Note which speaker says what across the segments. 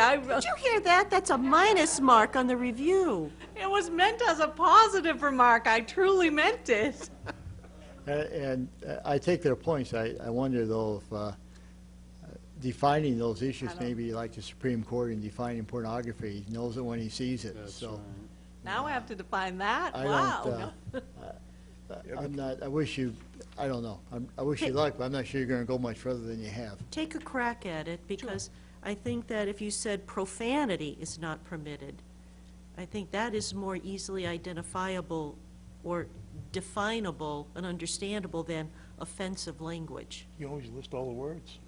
Speaker 1: I wrote,
Speaker 2: Did you hear that? That's a minus mark on the review.
Speaker 1: it was meant as a positive remark. I truly meant it.
Speaker 3: Uh, And uh, I take their points. I, I wonder though if uh, defining those issues, maybe like the Supreme Court in defining pornography, he knows it when he sees it, so.
Speaker 1: Now I have to define that.
Speaker 3: I
Speaker 1: wow.
Speaker 3: don't, uh, I- I'm not, I wish you, I don't know. I'm- I wish you luck, but I'm not sure you're going to go much further than you have.
Speaker 2: Take a crack at it, because I think that if you said profanity is not permitted, I think that is more easily identifiable or definable and understandable than offensive language.
Speaker 4: You always list all the words.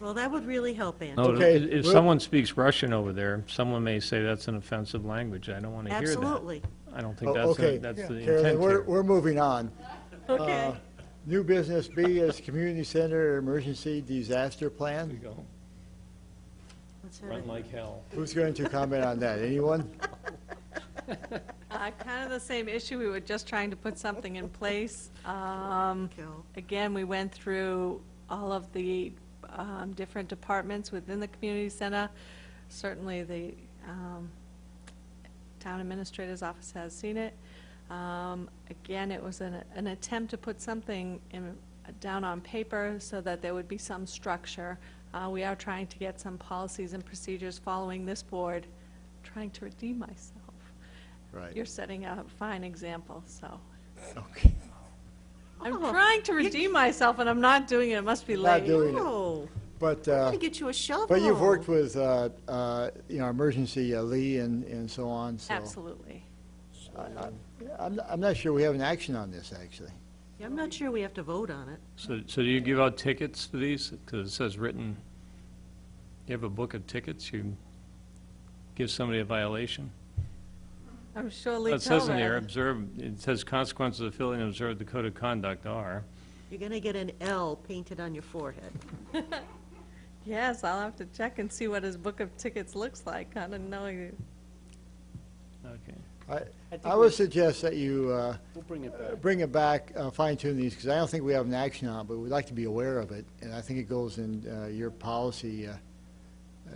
Speaker 2: Well, that would really help, Andy.
Speaker 5: No,
Speaker 3: Okay,
Speaker 5: if if
Speaker 3: we're-
Speaker 5: someone speaks Russian over there, someone may say that's an offensive language. I don't want to hear that.
Speaker 2: Absolutely.
Speaker 5: I don't
Speaker 3: Oh,
Speaker 5: think that's,
Speaker 3: okay.
Speaker 5: the- that's the
Speaker 3: Carolyn,
Speaker 5: intent
Speaker 3: we're,
Speaker 5: here.
Speaker 3: we're moving on. Uh,
Speaker 2: Uh,
Speaker 1: Okay.
Speaker 3: New business B is community center emergency disaster
Speaker 5: There you
Speaker 3: plan.
Speaker 5: go.
Speaker 2: Let's have
Speaker 5: Run
Speaker 2: it.
Speaker 5: like hell.
Speaker 3: Who's going to comment on that? Anyone?
Speaker 1: Uh, kind of the same issue. We were just trying to put something in place. Um,
Speaker 2: Kill.
Speaker 1: again, we went through all of the um, different departments within the community center. Certainly, the um, town administrator's office has seen it. Um, Again, it was an, an attempt to put something in, down on paper so that there would be some structure. Uh, We are trying to get some policies and procedures following this board, trying to redeem myself.
Speaker 3: Right.
Speaker 1: You're setting a fine example, so.
Speaker 3: Okay.
Speaker 1: I'm
Speaker 2: Oh,
Speaker 1: trying to redeem myself, and I'm not doing it. It must be
Speaker 3: You're not
Speaker 1: late.
Speaker 3: doing it.
Speaker 2: Oh,
Speaker 3: But.
Speaker 2: I'm
Speaker 3: uh,
Speaker 2: gonna get you a shovel.
Speaker 3: But
Speaker 4: Oh.
Speaker 3: you've worked with, uh, uh, you know, emergency uh, Lee and, and so on, so.
Speaker 1: Absolutely.
Speaker 3: I- I- I'm, not- I'm not sure we have an action on this, actually.
Speaker 2: I'm not sure we have to vote on it.
Speaker 5: So, so do you give out tickets to these? Because it says written, you have a book of tickets, you give somebody a violation?
Speaker 1: I'm sure Lee
Speaker 5: It says in there,
Speaker 1: Tillman.
Speaker 5: observe, it says consequences of failing to observe the code of conduct are.
Speaker 2: You're gonna get an L painted on your forehead.
Speaker 1: Yes, I'll have to check and see what his book of tickets looks like. I don't know. you-
Speaker 5: Okay.
Speaker 3: I,
Speaker 4: think
Speaker 3: I would suggest that you, uh,
Speaker 4: We'll bring it
Speaker 3: uh,
Speaker 4: back.
Speaker 3: bring it back, uh, fine tune these, because I don't think we have an action on it, but we'd like to be aware of it. And I think it goes in, uh, your policy, uh,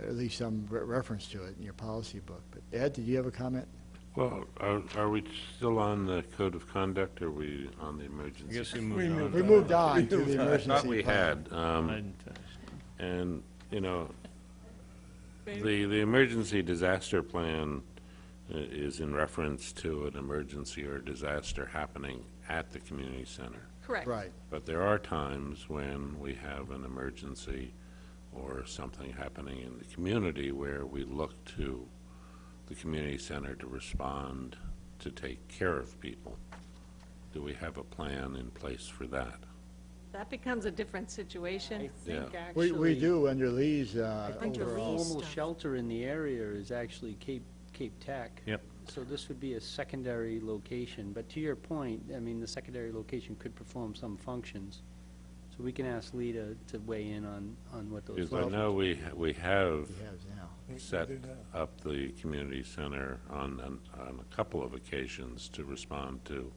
Speaker 3: at least some re- reference to it in your policy book. But Ed, did you have a comment?
Speaker 6: Well, are, are we still on the code of conduct, or are we on the
Speaker 5: I
Speaker 6: emergency?
Speaker 5: guess we
Speaker 4: We
Speaker 5: moved on.
Speaker 4: moved
Speaker 3: We moved on to the
Speaker 6: I
Speaker 3: emergency.
Speaker 6: thought we
Speaker 3: plan.
Speaker 6: had,
Speaker 5: I
Speaker 6: um,
Speaker 5: didn't finish.
Speaker 6: and, you know,
Speaker 1: Maybe.
Speaker 6: the, the emergency disaster plan i- is in reference to an emergency or disaster happening at the community center.
Speaker 1: Correct.
Speaker 3: Right.
Speaker 6: But there are times when we have an emergency or something happening in the community where we look to the community center to respond, to take care of people. Do we have a plan in place for that?
Speaker 1: That becomes a different situation.
Speaker 6: think
Speaker 3: We,
Speaker 4: actually.
Speaker 3: we do under Lee's,
Speaker 4: I
Speaker 3: uh,
Speaker 4: think the
Speaker 2: Under
Speaker 3: overall.
Speaker 2: Lee's
Speaker 4: formal
Speaker 2: stuff.
Speaker 4: shelter in the area is actually Cape, Cape Tech.
Speaker 5: Yep.
Speaker 4: So this would be a secondary location, but to your point, I mean, the secondary location could perform some functions. So we can ask Lee to, to weigh in on, on what those.
Speaker 6: Because I
Speaker 4: functions-
Speaker 6: know we, we have
Speaker 3: He has now.
Speaker 6: set up the community center on, on- on a couple of occasions to respond to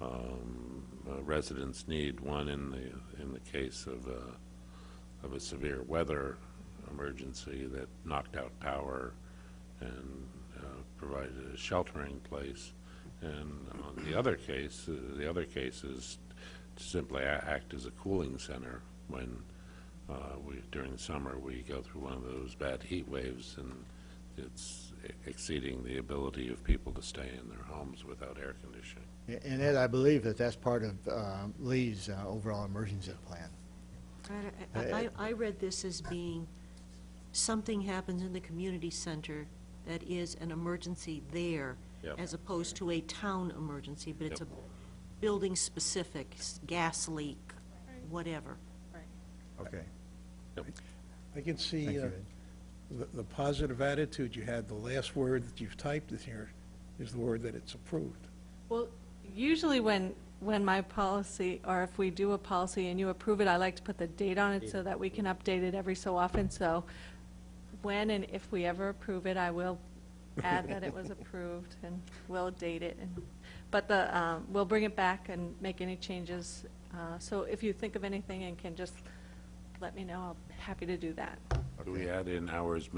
Speaker 6: um, uh, residents' need, one in the, in the case of a, of a severe weather emergency that knocked out power and uh, provided a sheltering place. And on the other case, uh, the other case is to simply a- act as a cooling center when uh, we, during the summer, we go through one of those bad heat waves, and it's e-, exceeding the ability of people to stay in their homes without air conditioning.
Speaker 3: And Ed, I believe that that's part of uh, Lee's uh, overall emergency plan.
Speaker 2: Right, I- I, I I read this as being, something happens in the community center that is an emergency there,
Speaker 6: Yep.
Speaker 2: as opposed to a town emergency, but it's a
Speaker 6: Yep.
Speaker 2: building-specific, s- gas leak, whatever.
Speaker 3: Okay.
Speaker 7: I can
Speaker 3: Thank
Speaker 7: see
Speaker 3: you,
Speaker 7: uh,
Speaker 3: Ed.
Speaker 7: the the positive attitude you had, the last word that you've typed in here is the word that it's approved.
Speaker 1: Well, usually when, when my policy, or if we do a policy and you approve it, I like to put the date on it so that we can update it every so often. So when and if we ever approve it, I will add that it was approved and we'll date it. And But the, um, we'll bring it back and make any changes. Uh, So if you think of anything and can just let me know, I'll be happy to do that.
Speaker 6: Do we add in hours